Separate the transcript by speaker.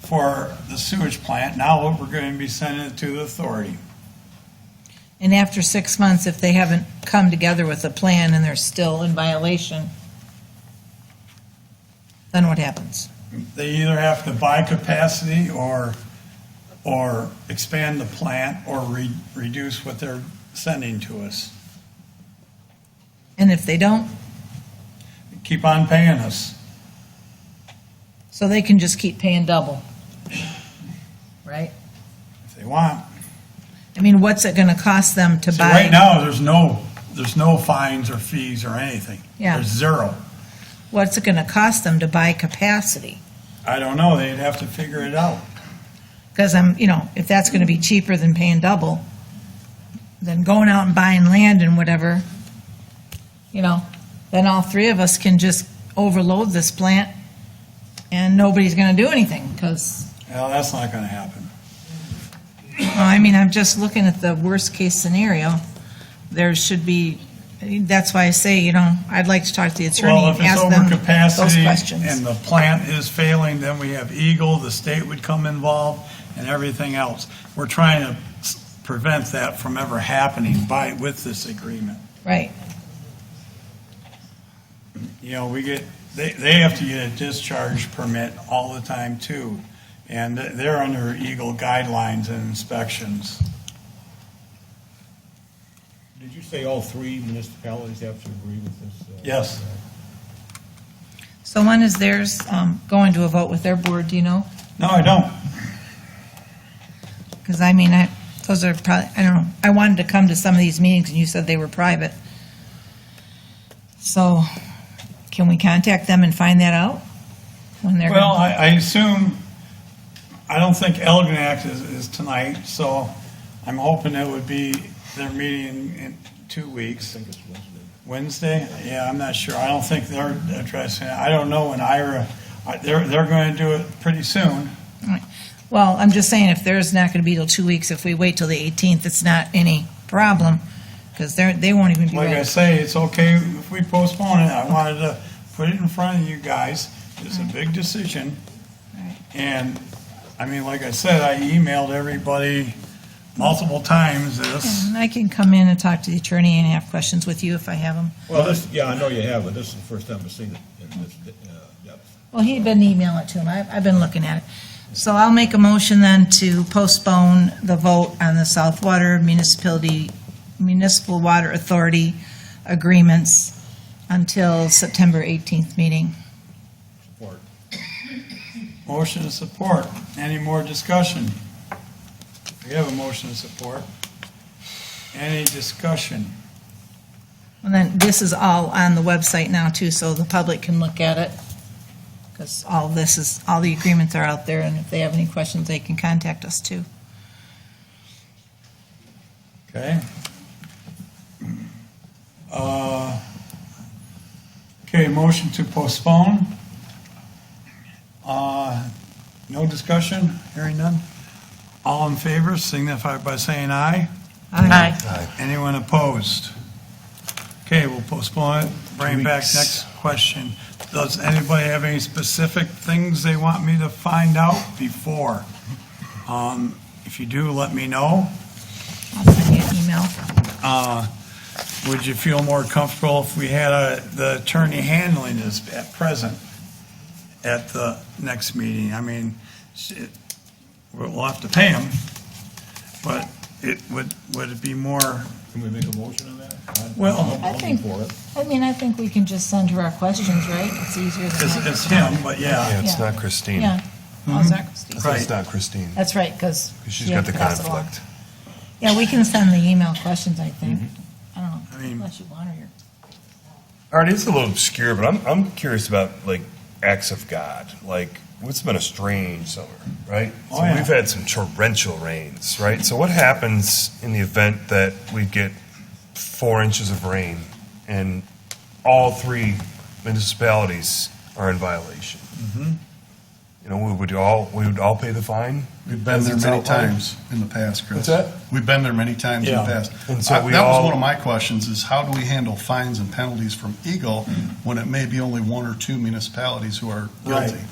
Speaker 1: for the sewage plant. Now we're going to be sending it to the authority.
Speaker 2: And after six months, if they haven't come together with a plan and they're still in violation, then what happens?
Speaker 1: They either have to buy capacity or, or expand the plant or re- reduce what they're sending to us.
Speaker 2: And if they don't,
Speaker 1: Keep on paying us.
Speaker 2: so they can just keep paying double, right?
Speaker 1: if they want.
Speaker 2: I mean, what's it gonna cost them to
Speaker 1: See, right
Speaker 2: buy?
Speaker 1: now, there's no, there's no fines or fees or anything.
Speaker 2: Yeah.
Speaker 1: There's zero.
Speaker 2: What's it gonna cost them to buy capacity?
Speaker 1: I don't know, they'd have to figure it out.
Speaker 2: Because I'm, you know, if that's gonna be cheaper than paying double, then going out and buying land and whatever, you know, then all three of us can just overload this plant and nobody's gonna do anything, because,
Speaker 1: Well, that's not gonna happen.
Speaker 2: I mean, I'm just looking at the worst-case scenario. There should be, I mean, that's why I say, you know, I'd like to talk to the attorney
Speaker 1: Well, if
Speaker 2: and
Speaker 1: it's
Speaker 2: ask them those
Speaker 1: overcapacity and
Speaker 2: questions.
Speaker 1: the plant is failing, then we have Eagle, the state would come involved and everything else. We're trying to s- prevent that from ever happening by, with this agreement.
Speaker 2: Right,
Speaker 1: You know, we get, they, they have to get a discharge permit all the time too. And th- they're under Eagle guidelines and inspections.
Speaker 3: Did you say all three municipalities have to agree with this? uh,
Speaker 1: Yes.
Speaker 2: so when is theirs um, going to a vote with their board, do you know?
Speaker 1: No, I don't.
Speaker 2: Because I mean, I, those are probably, I don't know, I wanted to come to some of these meetings and you said they were private. So can we contact them and find that out? When they're,
Speaker 1: Well,
Speaker 2: gonna-
Speaker 1: I, I assume, I don't think Elginak is, is tonight, so I'm hoping it would be their meeting in two weeks. Wednesday? Yeah, I'm not sure. I don't think they're addressing it. I don't know when Ira, I- they're, they're going to do it pretty soon.
Speaker 2: well, I'm just saying, if there's not going to be till two weeks, if we wait till the 18th, it's not any problem. Because they're, they won't even be
Speaker 1: Like I
Speaker 2: ready.
Speaker 1: say, it's okay if we postpone it. I wanted to put it in front of you guys. It's a big decision.
Speaker 2: Right.
Speaker 1: And, I mean, like I said, I emailed everybody multiple times this.
Speaker 2: And I can come in and talk to the attorney and have questions with you if I have them.
Speaker 3: Well, this, yeah, I know you have, but this is the first time I've seen it in this uh, depth.
Speaker 2: Well, he'd been emailing it to him. I've, I've been looking at it. So I'll make a motion then to postpone the vote on the South Water Municipality, Municipal Water Authority agreements until September 18th meeting.
Speaker 3: Support.
Speaker 1: Motion and support. Any more discussion? We have a motion and support. Any discussion?
Speaker 2: And then this is all on the website now too, so the public can look at it. Because all this is, all the agreements are out there and if they have any questions, they can contact us too.
Speaker 1: Okay. Uh, Okay, motion to postpone. Uh, No discussion, hearing none. All in favor, signify by saying aye.
Speaker 2: Aye.
Speaker 1: Anyone opposed? Okay, we'll postpone it, bring back next question. Does anybody have any specific things they want me to find out before? Um, If you do, let me know.
Speaker 2: I'll send you an email.
Speaker 1: Uh, Would you feel more comfortable if we had a- the attorney handling this at present at the next meeting? I mean, it- we'll have to pay him, but it would, would it be more,
Speaker 3: Can we make a motion on that? I'm-
Speaker 1: Well,
Speaker 3: I'm
Speaker 2: I
Speaker 3: looking
Speaker 2: think,
Speaker 3: for it.
Speaker 2: I mean, I think we can just send her our questions, right? It's easier than.
Speaker 1: it's it's him, but yeah.
Speaker 4: Yeah, it's
Speaker 2: Yeah.
Speaker 4: not Christine.
Speaker 2: Yeah. Oh, How's that, Christine?
Speaker 1: Right.
Speaker 4: It's not Christine.
Speaker 2: That's right, because.
Speaker 4: She's got the conflict.
Speaker 2: Yeah, we can send the email questions, I think.
Speaker 4: Mm-hmm.
Speaker 2: I
Speaker 1: I
Speaker 2: don't know,
Speaker 1: mean-
Speaker 2: unless you want her here.
Speaker 4: All right, it's a little obscure, but I'm, I'm curious about like acts of God. Like, it's been a strange summer, right?
Speaker 1: Oh,
Speaker 4: so
Speaker 1: yeah.
Speaker 4: we've had some torrential rains, right? So what happens in the event that we get four inches of rain and all three municipalities are in violation?
Speaker 5: Mm-hmm.
Speaker 4: You know, we would all we would all pay the fine.
Speaker 5: We've been there
Speaker 4: It's
Speaker 5: many
Speaker 4: outlined.
Speaker 5: times in the past,
Speaker 4: What's
Speaker 5: Chris.
Speaker 4: that?
Speaker 5: We've been there many times in the
Speaker 1: Yeah.
Speaker 5: past.
Speaker 4: And so
Speaker 5: I-
Speaker 4: we
Speaker 5: That was
Speaker 4: all-
Speaker 5: one of my questions, is how do we handle fines and penalties from Eagle when it may be only one or two municipalities who are
Speaker 1: Right.
Speaker 5: guilty?